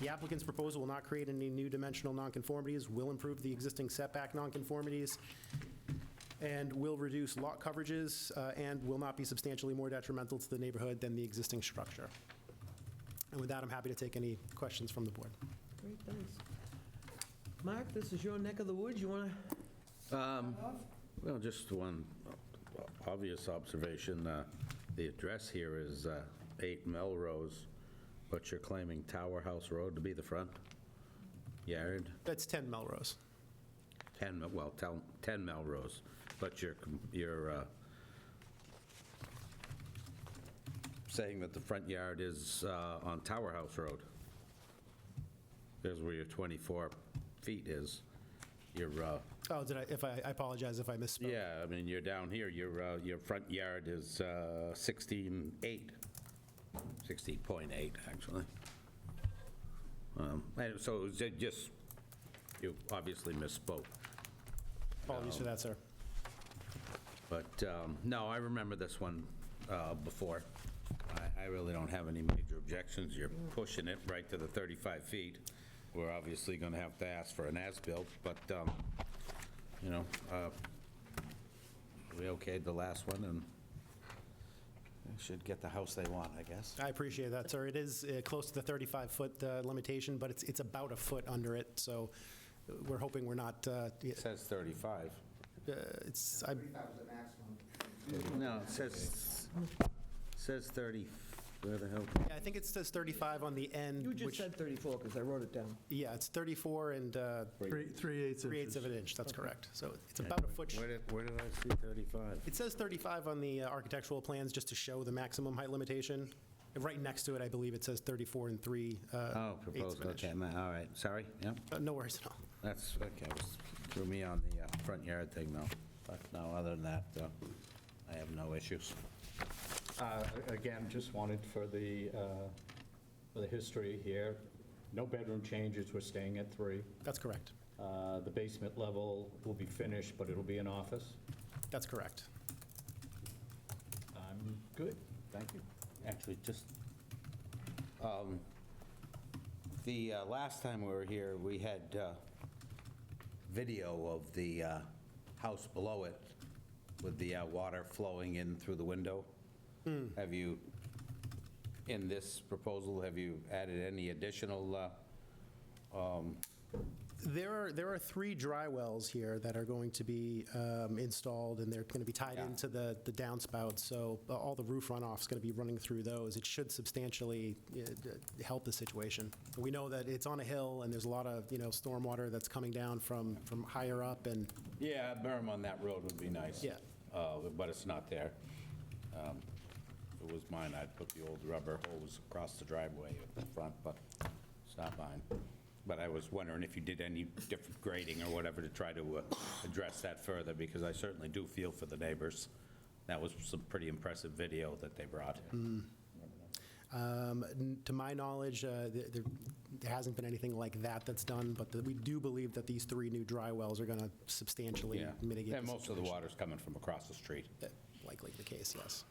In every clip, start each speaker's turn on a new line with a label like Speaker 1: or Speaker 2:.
Speaker 1: The applicant's proposal will not create any new dimensional nonconformities, will improve the existing setback nonconformities, and will reduce lot coverages, uh, and will not be substantially more detrimental to the neighborhood than the existing structure. And with that, I'm happy to take any questions from the board.
Speaker 2: Great, thanks. Mark, this is your neck of the woods, you want to?
Speaker 3: Well, just one obvious observation. uh, The address here is uh, 8 Melrose, but you're claiming Tower House Road to be the front yard?
Speaker 1: That's 10 Melrose.
Speaker 3: 10, Mel- well, tel- 10 Melrose, but you're, com- you're uh, saying that the front yard is uh, on Tower House Road. There's where your 24 feet is. You're, uh,
Speaker 1: Oh, did I, if I, I apologize if I misspoke.
Speaker 3: yeah, I mean, you're down here, your, uh, your front yard is uh, 16.8, 16.8, actually. Um, And so is it just, you obviously misspoke,
Speaker 1: Apologies for that, sir.
Speaker 3: but, um, no, I remember this one uh, before. I, I really don't have any major objections, you're pushing it right to the 35 feet. We're obviously going to have to ask for an as-built, but, um, you know, uh, we okayed the last one, and should get the house they want, I guess.
Speaker 1: I appreciate that, sir. It is uh, close to the 35-foot limitation, but it's, it's about a foot under it, so uh, we're hoping we're not, uh, y-
Speaker 3: It says 35.
Speaker 1: uh, it's, I,
Speaker 3: No, it says, says 30, where the hell?
Speaker 1: I think it says 35 on the end,
Speaker 2: You just
Speaker 1: which,
Speaker 2: said 34, because I wrote it down.
Speaker 1: yeah, it's 34 and uh,
Speaker 4: Three- Three-eighths inches.
Speaker 1: three-eighths of an inch, that's correct. So it's about a foot. sh-
Speaker 3: Where did, where did I see 35?
Speaker 1: It says 35 on the uh, architectural plans, just to show the maximum height limitation. And Right next to it, I believe it says 34 and 3. uh,
Speaker 3: Oh,
Speaker 1: eighths of an
Speaker 3: proposed,
Speaker 1: inch.
Speaker 3: okay, ma- all right, sorry, yep,
Speaker 1: Uh, No worries at all.
Speaker 3: that's, okay, it was- threw me on the uh, front yard thing, though. But no, other than that, uh, I have no issues.
Speaker 5: Uh, Again, just wanted for the, uh, for the history here, no bedroom changes, we're staying at three.
Speaker 1: That's correct.
Speaker 5: Uh, The basement level will be finished, but it'll be an office.
Speaker 1: That's correct.
Speaker 5: I'm good, thank you.
Speaker 3: Actually, just, um, the uh, last time we were here, we had uh, video of the uh, house below it with the uh, water flowing in through the window. Have you, in this proposal, have you added any additional, uh,
Speaker 1: There are, there are three dry wells here that are going to be um, installed, and they're going to be tied
Speaker 3: Yeah.
Speaker 1: into the the downspout, so uh, all the roof runoff's going to be running through those. It should substantially uh, d- help the situation. We know that it's on a hill, and there's a lot of, you know, stormwater that's coming down from, from higher up, and
Speaker 3: yeah, a berm on that road would be nice.
Speaker 1: Yeah.
Speaker 3: Uh, But it's not there. Um, If it was mine, I'd put the old rubber hose across the driveway at the front, but it's not mine. But I was wondering if you did any different grading or whatever to try to uh, address that further, because I certainly do feel for the neighbors. That was some pretty impressive video that they brought.
Speaker 1: Mm-hmm. Um, n- To my knowledge, uh, th- there there hasn't been anything like that that's done, but the- we do believe that these three new dry wells are going to substantially
Speaker 3: Yeah.
Speaker 1: mitigate the
Speaker 3: And most of the
Speaker 1: situation.
Speaker 3: water's coming from across the street.
Speaker 1: That- Likely the case, yes.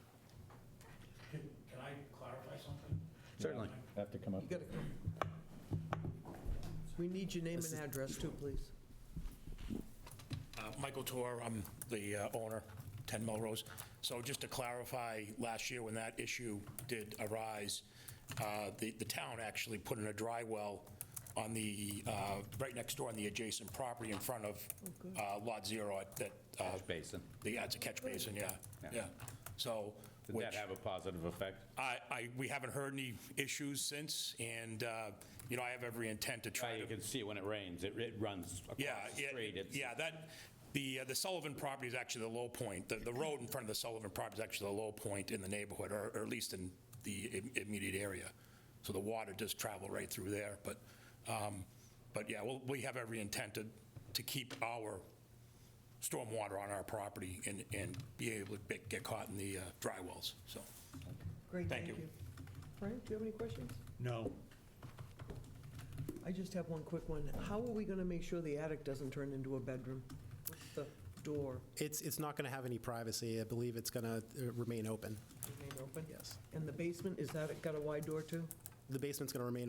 Speaker 6: Can I clarify something?
Speaker 3: Certainly.
Speaker 5: Have to come up.
Speaker 2: You got to come. We need your name and address too, please.
Speaker 6: Uh, Michael Tor, I'm the uh, owner, 10 Melrose. So just to clarify, last year when that issue did arise, uh, the the town actually put in a dry well on the, uh, right next door on the adjacent property in front of uh, Lot Zero at that, uh,
Speaker 3: Basin.
Speaker 6: the- yeah, it's a catch basin, yeah,
Speaker 3: Yeah.
Speaker 6: yeah. So.
Speaker 3: Did that
Speaker 6: which-
Speaker 3: have a positive effect?
Speaker 6: I, I, we haven't heard any issues since, and, uh, you know, I have every intent to
Speaker 3: Yeah,
Speaker 6: try to.
Speaker 3: You can see when it rains, it it runs
Speaker 6: Yeah,
Speaker 3: across the
Speaker 6: yeah,
Speaker 3: street. It's-
Speaker 6: yeah, that, the, uh, the Sullivan property is actually the low point. The, the road in front of the Sullivan property is actually the low point in the neighborhood, or, or at least in the im- immediate area. So the water does travel right through there, but, um, but yeah, well, we have every intent to, to keep our stormwater on our property and, and be able to be- get caught in the uh, dry wells, so.
Speaker 2: Great,
Speaker 6: Thank you.
Speaker 2: Frank, do you have any questions?
Speaker 4: No.
Speaker 2: I just have one quick one. How are we going to make sure the attic doesn't turn into a bedroom? What's the door
Speaker 1: It's, it's not going to have any privacy. I believe it's going to remain open.
Speaker 2: remain open?
Speaker 1: Yes.
Speaker 2: And the basement, is that got a wide door too?
Speaker 1: The basement's going to remain